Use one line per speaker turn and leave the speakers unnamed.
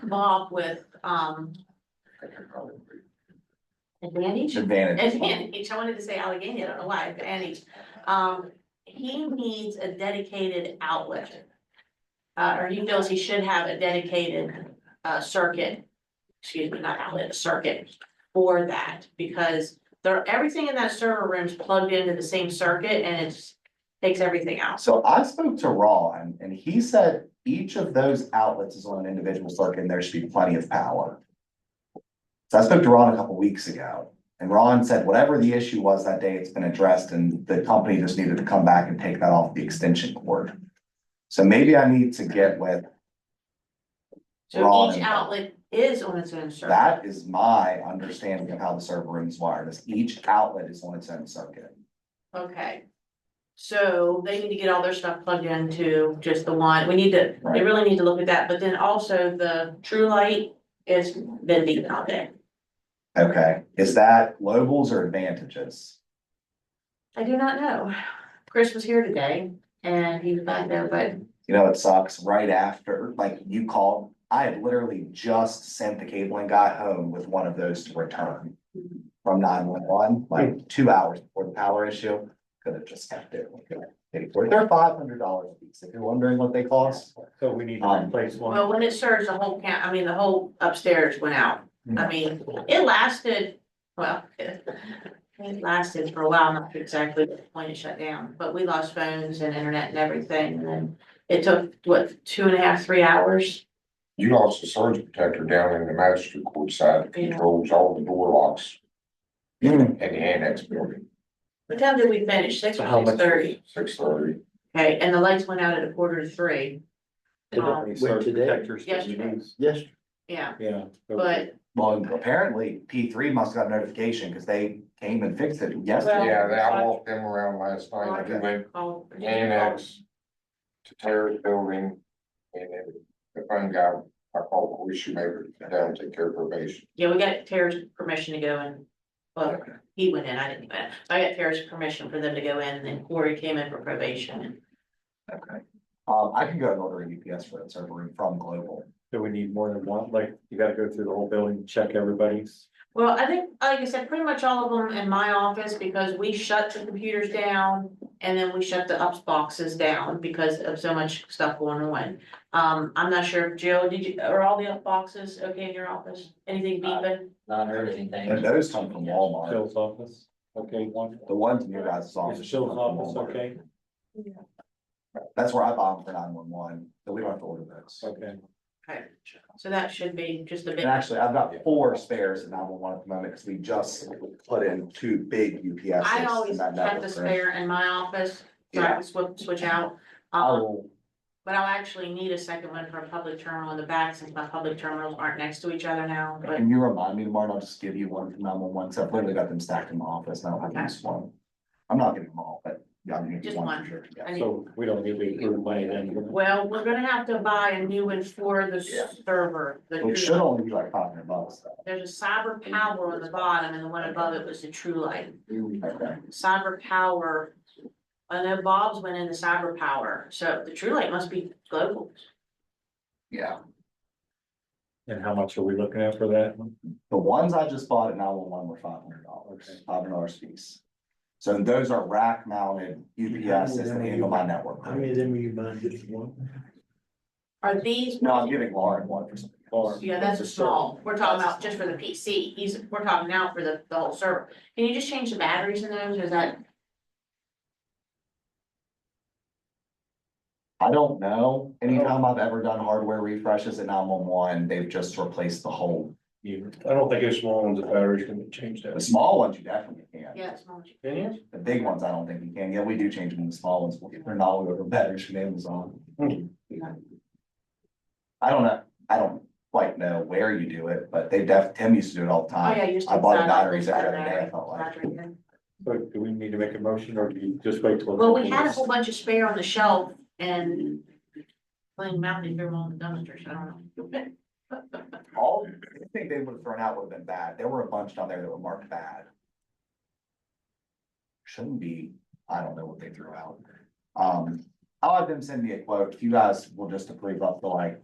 come up with, um, advantage?
Advantage.
Advantage, I wanted to say Allegheny, I don't know why, advantage. Um, he needs a dedicated outlet. Uh, or he feels he should have a dedicated, uh, circuit, excuse me, not outlet, a circuit for that, because there, everything in that server room is plugged into the same circuit and it's, takes everything out.
So I spoke to Ron and he said each of those outlets is on an individual circuit and there should be plenty of power. So I spoke to Ron a couple weeks ago and Ron said whatever the issue was that day, it's been addressed and the company just needed to come back and take that off the extension cord. So maybe I need to get with,
So
Wrong.
each outlet is on its own circuit.
that is my understanding of how the server room is wired, is each outlet is on its own circuit.
Okay. So they need to get all their stuff plugged into just the one, we need to, they
Right.
really need to look at that, but then also the true light is been beaten out there.
Okay, is that globals or advantages?
I do not know, Chris was here today and he was back there, but
You know, it sucks right after, like you called, I had literally just sent the cabling guy home with one of those to return. From nine one one, like two hours before the power issue, could have just kept it. Paid for it. They're five hundred dollars a piece, if you're wondering what they cost.
So we need to
Um,
replace one.
well, when it surged, the whole count, I mean, the whole upstairs went out. I mean, it lasted, well, it it lasted for a while, not exactly the point it shut down, but we lost phones and internet and everything, and then it took, what, two and a half, three hours?
You lost the surge protector down in the magistrate court side, that
Yeah.
controls all the door locks
Hmm,
in the annex building,
What time did we finish? Six
So
or
how
six
much-
thirty?
six thirty.
Okay, and the lights went out at a quarter to three. Um,
Surge
today?
protectors that we
Yesterday.
use.
Yes,
yeah,
Yeah.
but
Well, apparently P three must have got a notification because they came and fixed it yesterday.
Well,
Yeah, they- I
I-
walked them around last night, they
Okay.
went
call.
annex to Terrace Building, and then the phone guy, I called the issuemaker to come down and take care of probation.
Yeah, we got Tara's permission to go in. Well,
Okay.
he went in, I didn't go in. I got Tara's permission for them to go in and then Corey came in for probation.
Okay. Um, I can go and order a UPS for that server room from Global.
Do we need more than one? Like, you gotta go through the whole building, check everybody's.
Well, I think, like I said, pretty much all of them in my office because we shut the computers down and then we shut the ups boxes down because of so much stuff going on. Um, I'm not sure, Jill, did you, are all the up boxes okay in your office? Anything beeping?
not heard anything.
And those come from Walmart.
Phil's office, okay, one.
The ones in your guys' office.
Is Phil's office, okay,
That's where I bought them for nine one one, so we don't have to order those.
okay.
Okay, so that should be just a bit,
And actually, I've got four spares in nine one one at the moment, because we just put in two big UPSs.
I always
in that
have the
network room.
spare in my office, so I can switch, switch out. Um,
I'll,
but I'll actually need a second one for a public terminal in the back, since my public terminals aren't next to each other now, but,
can you remind me tomorrow, and I'll just give you one from nine one one, so I've literally got them stacked in my office, and I don't have to use one. I'm not getting them all, but yeah, I'm gonna get
Just
one
one.
for sure. yeah.
I need-
So we don't need to approve money then.
well, we're gonna have to buy a new one for the
Yeah.
server. the
It
true-
should only be like five hundred bucks, though.
There's a cyber power on the bottom, and the one above it was the true light.
Okay,
cyber power. I know Bob's went into cyber power, so the true light must be global.
yeah.
And how much are we looking at for that?
The ones I just bought at nine one one were five hundred dollars,
Okay.
five hundred dollars piece. So those are rack mounted UPS that handle my network.
How many of them are you buying, just one?
Are these?
No, I'm giving Lauren one for something.
Or-
Yeah, that's a small, we're talking about just for the PC, he's, we're talking now for the, the whole server. Can you just change the batteries in those, or is that,
I don't know, anytime I've ever done hardware refreshes at nine one one, they've just replaced the whole,
I don't think it's long, the batteries can change
the small ones you definitely can.
yeah, it's not.
The big ones, I don't think you can, yeah, we do change them, the small ones, if they're not, we order batteries from Amazon. I don't know, I don't quite know where you do it, but they def, Tim used to do it all the
Oh, yeah,
time.
you just.
I bought
decide,
batteries
like,
every day, I
battery,
felt like.
battery, yeah.
But do we need to make a motion or do you just wait till?
Well, we had a whole bunch of spare on the shelf and. Playing mountain here on the dumpster, so I don't know.
All, I think they would have thrown out would have been bad. There were a bunch down there that were marked bad. Shouldn't be, I don't know what they threw out. Um, I'll have them send me a quote. If you guys will just approve up to like